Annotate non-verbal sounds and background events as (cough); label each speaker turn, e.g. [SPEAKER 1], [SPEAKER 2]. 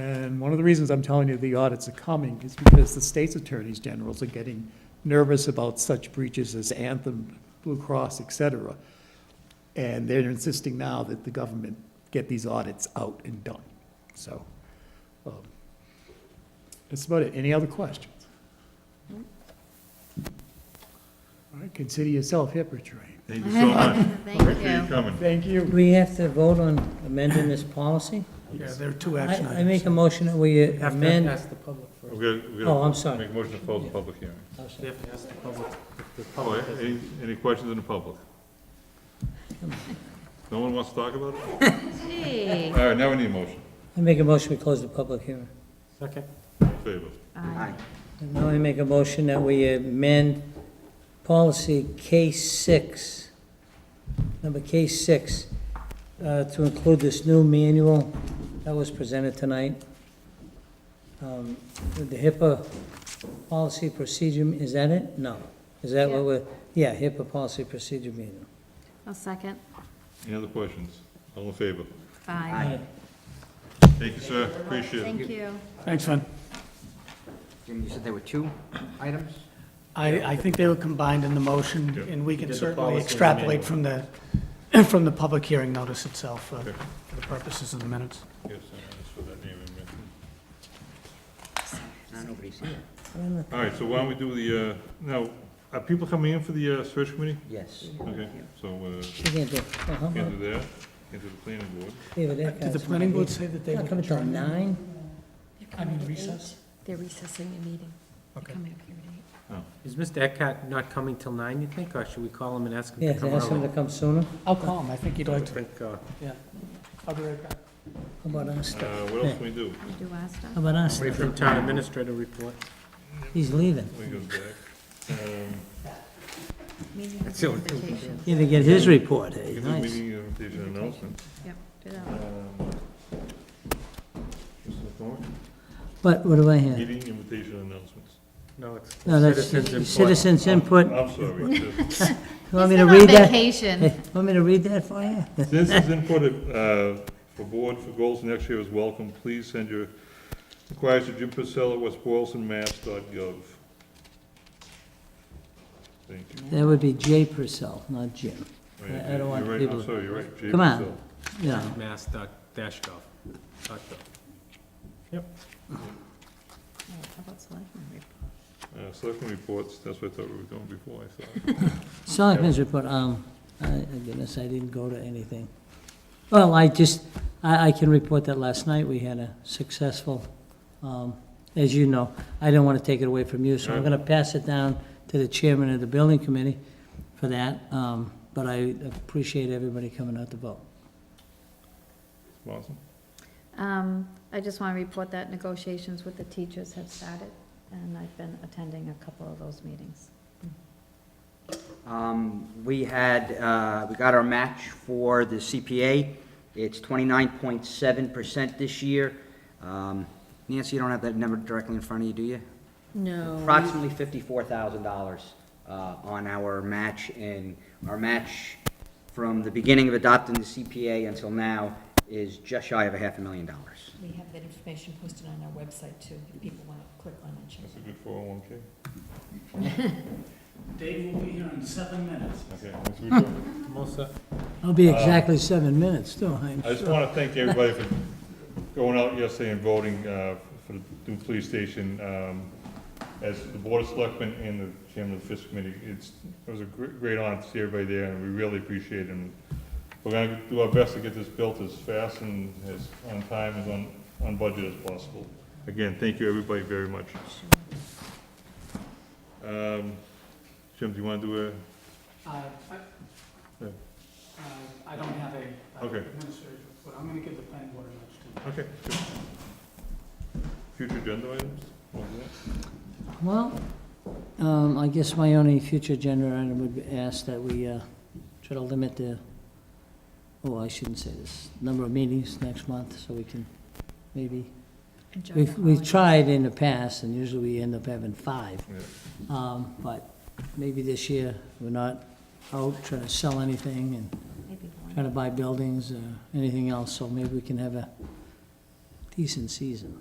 [SPEAKER 1] And one of the reasons I'm telling you the audits are coming is because the state's attorneys generals are getting nervous about such breaches as Anthem, Blue Cross, et cetera. And they're insisting now that the government get these audits out and done. So, um, that's about it. Any other questions? All right, consider yourself hip, Richard.
[SPEAKER 2] Thank you so much.
[SPEAKER 3] Thank
[SPEAKER 2] Thanks for your
[SPEAKER 3] you.
[SPEAKER 2] coming.
[SPEAKER 1] Thank
[SPEAKER 4] Do
[SPEAKER 1] you.
[SPEAKER 4] we have to vote on amending this policy?
[SPEAKER 5] Yeah, there are two
[SPEAKER 4] I
[SPEAKER 5] action
[SPEAKER 4] I make
[SPEAKER 5] items.
[SPEAKER 4] a motion that we
[SPEAKER 5] We have to
[SPEAKER 4] amend,
[SPEAKER 5] ask the public first.
[SPEAKER 2] We're gonna, we're
[SPEAKER 4] oh,
[SPEAKER 2] gonna
[SPEAKER 4] I'm sorry.
[SPEAKER 2] make a motion to close the public hearing.
[SPEAKER 5] We have to ask the public. if the
[SPEAKER 2] Oh,
[SPEAKER 5] public has-
[SPEAKER 2] any, any questions in the public? No one wants to talk about it?
[SPEAKER 3] Hey.
[SPEAKER 2] All right, now we need a motion.
[SPEAKER 4] I make a motion we close the public hearing.
[SPEAKER 5] Second,
[SPEAKER 2] All in Favor.
[SPEAKER 4] And Now I make a motion that we amend policy K6, number K6, uh, to include this new manual that was presented tonight. Um, The HIPAA policy procedure, is that it? No. Is that
[SPEAKER 3] Yeah.
[SPEAKER 4] what we're, yeah, HIPAA policy procedure manual.
[SPEAKER 3] A second.
[SPEAKER 2] Any other questions? All in favor?
[SPEAKER 3] Aye.
[SPEAKER 2] Thank you, sir. Appreciate it.
[SPEAKER 3] Thank you.
[SPEAKER 5] thanks, Fran.
[SPEAKER 6] Jim, you said there were two items?
[SPEAKER 7] I, I think they were combined in the motion, and we can
[SPEAKER 5] did the
[SPEAKER 7] certainly
[SPEAKER 5] policy and the
[SPEAKER 7] extrapolate from the, from the (clears throat) public hearing notice itself uh,
[SPEAKER 2] Okay.
[SPEAKER 7] for the purposes of the minutes.
[SPEAKER 2] Yes, sir, that's for that name and mention.
[SPEAKER 6] No, nobody's here.
[SPEAKER 2] All right, so why don't we do the, uh, now, are people coming in for the, uh, search committee?
[SPEAKER 6] Yes.
[SPEAKER 2] Okay, so, uh,
[SPEAKER 4] You can't do, oh, how about-
[SPEAKER 2] can't do that, can't do the planning board.
[SPEAKER 4] David, that
[SPEAKER 7] Did the
[SPEAKER 4] guy's
[SPEAKER 7] planning
[SPEAKER 4] gonna
[SPEAKER 7] board
[SPEAKER 4] be-
[SPEAKER 7] say that they
[SPEAKER 4] Not
[SPEAKER 7] would
[SPEAKER 4] coming till
[SPEAKER 7] adjourn?
[SPEAKER 4] nine?
[SPEAKER 7] I mean, recess?
[SPEAKER 3] They're recessing the meeting.
[SPEAKER 7] Okay.
[SPEAKER 3] Coming up here at
[SPEAKER 5] Is Mr. Eckhart not coming till nine, you think, or should we call him and ask him
[SPEAKER 4] Yeah,
[SPEAKER 5] to
[SPEAKER 4] to
[SPEAKER 5] come
[SPEAKER 4] ask him to
[SPEAKER 5] early?
[SPEAKER 4] come sooner.
[SPEAKER 7] I'll call him, I think he'd
[SPEAKER 5] I
[SPEAKER 7] like to.
[SPEAKER 5] think, uh,
[SPEAKER 7] I'll be right back.
[SPEAKER 4] How about our
[SPEAKER 2] Uh,
[SPEAKER 4] stuff?
[SPEAKER 2] what else can we do?
[SPEAKER 3] 8. Do our stuff.
[SPEAKER 4] How about our
[SPEAKER 5] Wait
[SPEAKER 4] stuff?
[SPEAKER 5] for the town administrator report.
[SPEAKER 4] He's leaving.
[SPEAKER 2] We go back. Um,
[SPEAKER 3] Meeting
[SPEAKER 5] That's the only thing we
[SPEAKER 3] presentation.
[SPEAKER 4] He had to get his report,
[SPEAKER 2] we
[SPEAKER 4] hey,
[SPEAKER 2] can do
[SPEAKER 4] nice.
[SPEAKER 2] meeting invitation announcement.
[SPEAKER 3] Yep, do that
[SPEAKER 2] Um,
[SPEAKER 3] one.
[SPEAKER 2] Mr. Thorne?
[SPEAKER 4] But what do I have?
[SPEAKER 2] Meeting invitation announcements.
[SPEAKER 5] No, it's
[SPEAKER 4] No, that's
[SPEAKER 5] citizens input.
[SPEAKER 4] citizens input. You
[SPEAKER 2] I'm
[SPEAKER 4] (laughs)
[SPEAKER 2] sorry. just-
[SPEAKER 4] want me
[SPEAKER 3] He's
[SPEAKER 4] to
[SPEAKER 3] been on
[SPEAKER 4] read that?
[SPEAKER 3] Vacation.
[SPEAKER 4] Hey, Want me to read that for you?
[SPEAKER 2] Citizens input uh, for board for goals next year is welcome. Please send your inquiries to Jim Priscilla, West Boylston, mass.gov. Thank you.
[SPEAKER 4] That would be Jay Purcell, not Jim.
[SPEAKER 2] Right,
[SPEAKER 4] I- I don't want
[SPEAKER 2] you're right,
[SPEAKER 4] people-
[SPEAKER 2] I'm sorry, you're right. Jay
[SPEAKER 4] Come on.
[SPEAKER 2] Priscilla.
[SPEAKER 4] You know,
[SPEAKER 5] Mass dot dash gov. dot gov.
[SPEAKER 3] How about selectmen report?
[SPEAKER 2] Uh, Selectmen reports, that's what I thought we were doing before, I thought.
[SPEAKER 4] Selectmen's report, um, I, I goodness, I didn't go to anything. Well, I just, I, I can report that last night we had a successful, um, as you know, I didn't want to take it away from you, so I'm gonna pass it down to the chairman of the building committee for that, um, but I appreciate everybody coming out to vote.
[SPEAKER 2] Awesome.
[SPEAKER 3] Um, I just want to report that negotiations with the teachers have started, and I've been attending a couple of those meetings.
[SPEAKER 6] Um, We had, uh, we got our match for the CPA. It's 29.7% this year. Um, Nancy, you don't have that number directly in front of you, do you?
[SPEAKER 3] No.
[SPEAKER 6] approximately fifty-four thousand dollars uh, on our match, and our match from the beginning of adopting the CPA until now is just shy of a half a million dollars.
[SPEAKER 8] We have that information posted on our website too, if people want to click on and check
[SPEAKER 2] That's a
[SPEAKER 8] it
[SPEAKER 2] good 401K.
[SPEAKER 9] (laughs) Dave will be here in seven minutes.
[SPEAKER 2] Okay, that's what we're doing.
[SPEAKER 5] Melissa,
[SPEAKER 4] It'll be exactly seven minutes, too, I'm
[SPEAKER 2] I just
[SPEAKER 4] sure.
[SPEAKER 2] want to thank everybody for going out yesterday and voting uh, for the new police station. Um, As the Board of Selectmen and the chairman of the fiscal committee, it's, it was a gr- great honor to see everybody there, and we really appreciate it. And We're going to do our best to get this built as fast and as on time and on, on budget as possible. Again, thank you, everybody, very much. Um, Jim, do you want to do a,
[SPEAKER 7] Uh,
[SPEAKER 2] Yeah.
[SPEAKER 7] I- uh, I don't have a uh,
[SPEAKER 2] Okay.
[SPEAKER 7] administrative, but I'm going to give the planning board a nudge too.
[SPEAKER 2] okay. sure. Future agenda items? What was that?
[SPEAKER 4] Well, um, I guess my only future agenda item would be ask that we, uh, try to limit the, oh, I shouldn't say this, number of meetings next month, so we can maybe,
[SPEAKER 3] Enjoy the
[SPEAKER 4] we've, we've
[SPEAKER 3] holidays.
[SPEAKER 4] tried in the past, and usually we end up having five.
[SPEAKER 2] Yeah.
[SPEAKER 4] Um, but maybe this year, we're not out trying to sell anything and
[SPEAKER 3] Maybe one.
[SPEAKER 4] trying to buy buildings or anything else, so maybe we can have a decent season.